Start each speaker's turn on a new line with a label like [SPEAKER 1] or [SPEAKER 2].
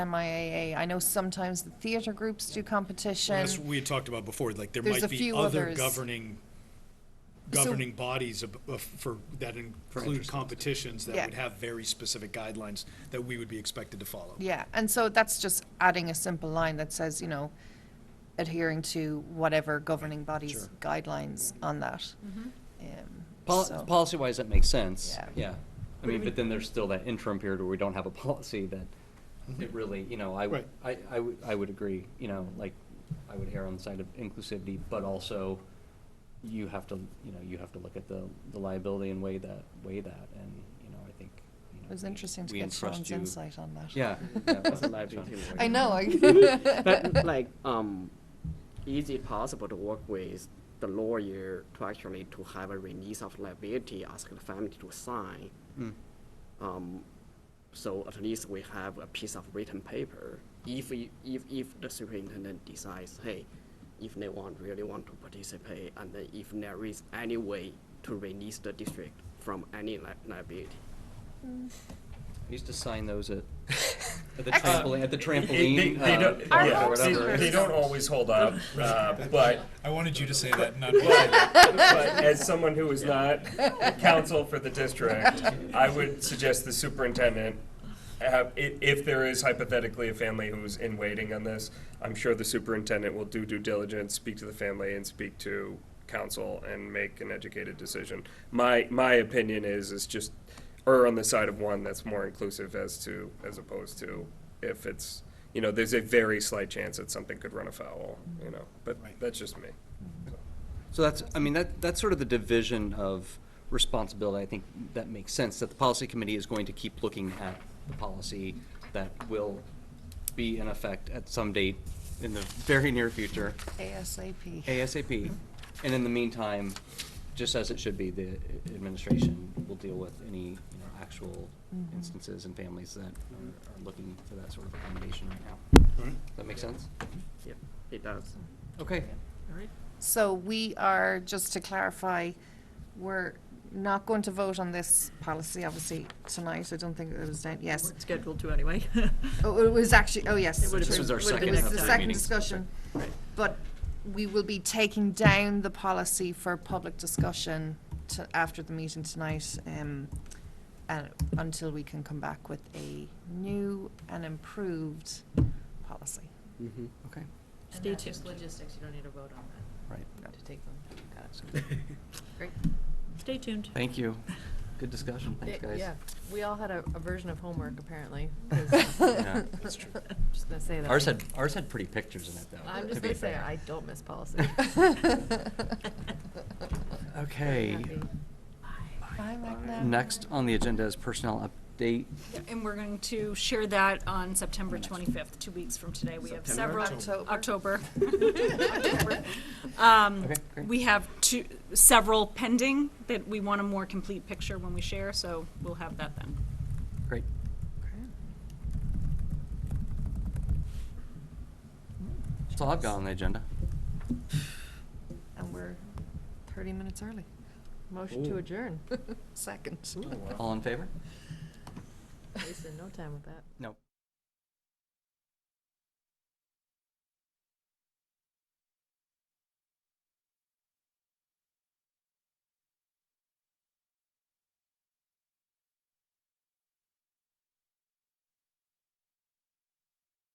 [SPEAKER 1] MIAA. I know sometimes the theater groups do competition.
[SPEAKER 2] As we had talked about before, like there
[SPEAKER 1] There's a
[SPEAKER 2] might be
[SPEAKER 1] few
[SPEAKER 2] other
[SPEAKER 1] others.
[SPEAKER 2] governing,
[SPEAKER 1] So-
[SPEAKER 2] governing bodies of, of, for, that include competitions that
[SPEAKER 1] Yeah.
[SPEAKER 2] would have very specific guidelines that we would be expected to follow.
[SPEAKER 1] Yeah, and so that's just adding a simple line that says, you know, adhering to whatever governing body's
[SPEAKER 2] Sure.
[SPEAKER 1] guidelines on that. Um,
[SPEAKER 3] Pol-
[SPEAKER 1] so-
[SPEAKER 3] Policy-wise, that makes sense,
[SPEAKER 1] Yeah.
[SPEAKER 3] yeah. I mean, but then there's still that interim period where we don't have a policy that
[SPEAKER 4] Mm-hmm.
[SPEAKER 3] it really, you know, I, w- I, I would, I would agree, you know, like, I would err on the side of inclusivity, but also you have to, you know, you have to look at the, the liability and weigh that, weigh that, and, you know, I think, you know.
[SPEAKER 1] It was
[SPEAKER 3] we-
[SPEAKER 1] interesting to
[SPEAKER 3] we
[SPEAKER 1] get
[SPEAKER 3] entrust
[SPEAKER 1] Sean's
[SPEAKER 3] you-
[SPEAKER 1] insight on that.
[SPEAKER 3] Yeah. yeah, that's a live Sean.
[SPEAKER 1] I know.
[SPEAKER 5] But
[SPEAKER 1] I-
[SPEAKER 5] like, um, is it possible to work with the lawyer to actually to have a release of liability, ask the family to sign?
[SPEAKER 3] Mm.
[SPEAKER 5] Um, so at least we have a piece of written paper. If we, if, if the superintendent decides, hey, if they want, really want to participate, and then if there is any way to release the district from any li- liability.
[SPEAKER 3] I used to sign those at, at the
[SPEAKER 1] Excellent.
[SPEAKER 3] trampoline, at the
[SPEAKER 4] They- they-
[SPEAKER 3] trampoline,
[SPEAKER 4] they
[SPEAKER 3] uh,
[SPEAKER 4] don't-
[SPEAKER 1] Our
[SPEAKER 3] park
[SPEAKER 4] yeah,
[SPEAKER 3] or
[SPEAKER 1] homes
[SPEAKER 4] they-
[SPEAKER 1] are-
[SPEAKER 3] whatever.
[SPEAKER 4] They don't always hold up, uh, but,
[SPEAKER 2] I wanted you to say that, not.
[SPEAKER 4] but, but as someone who is not counsel for the district, I would suggest the superintendent, have, i- if there is hypothetically a family who's in waiting on this, I'm sure the superintendent will do due diligence, speak to the family and speak to counsel and make an educated decision. My, my opinion is, is just err on the side of one that's more inclusive as to, as opposed to if it's, you know, there's a very slight chance that something could run afoul, you know, but
[SPEAKER 2] Right.
[SPEAKER 4] that's just me.
[SPEAKER 3] So that's, I mean, that, that's sort of the division of responsibility. I think that makes sense, that the policy committee is going to keep looking at the policy that will be in effect at some date in the very near future,
[SPEAKER 1] ASAP.
[SPEAKER 3] ASAP. And in the meantime, just as it should be, the administration will deal with any, you know, actual
[SPEAKER 1] Mhm.
[SPEAKER 3] instances and families that are are looking for that sort of accommodation right now. Does that make sense?
[SPEAKER 5] Yep, it does.
[SPEAKER 3] Okay.
[SPEAKER 1] So we are, just to clarify, we're not going to vote on this policy, obviously, tonight. I don't think it was, done. yes.
[SPEAKER 6] weren't scheduled to anyway.
[SPEAKER 1] Oh, it was actually, oh, yes.
[SPEAKER 6] It would've
[SPEAKER 3] This been- was our would've
[SPEAKER 1] It
[SPEAKER 3] been
[SPEAKER 1] was
[SPEAKER 3] next
[SPEAKER 1] the
[SPEAKER 3] time.
[SPEAKER 1] second
[SPEAKER 3] meeting.
[SPEAKER 1] discussion. But we will be taking down the policy for public discussion to, after the meeting tonight, um, and until we can come back with a new and improved policy.
[SPEAKER 3] Mm-hmm. Okay,
[SPEAKER 6] Stay
[SPEAKER 7] And that's just
[SPEAKER 6] tuned.
[SPEAKER 7] logistics, you don't need to vote on that,
[SPEAKER 3] right.
[SPEAKER 7] to take them. Got it. Great.
[SPEAKER 6] Stay tuned.
[SPEAKER 3] Thank you. Good discussion. Thanks, guys.
[SPEAKER 7] Yeah, we all had a, a version of homework, apparently. 'cause-
[SPEAKER 3] Yeah, that's true.
[SPEAKER 7] I'm Just gonna say that.
[SPEAKER 3] Ours had, ours had pretty pictures in it, though.
[SPEAKER 7] I'm
[SPEAKER 3] to
[SPEAKER 7] just
[SPEAKER 3] be
[SPEAKER 7] gonna say,
[SPEAKER 3] fair.
[SPEAKER 7] I don't miss policy.
[SPEAKER 3] Okay.
[SPEAKER 7] Happy.
[SPEAKER 1] Bye, Magna.
[SPEAKER 3] Next on the agenda is personnel update.
[SPEAKER 8] Yeah, And we're going to share that on September 25th, two weeks from today. We have several.
[SPEAKER 1] October.
[SPEAKER 8] October. Um,
[SPEAKER 3] Okay, great.
[SPEAKER 8] We have two, several pending that we want a more complete picture when we share, so we'll have that then.
[SPEAKER 3] Great. That's all I've got on the agenda.
[SPEAKER 1] And we're thirty minutes early.
[SPEAKER 7] Motion to adjourn.
[SPEAKER 1] Second.
[SPEAKER 3] All in favor?
[SPEAKER 7] Wasted no time with that.
[SPEAKER 3] No.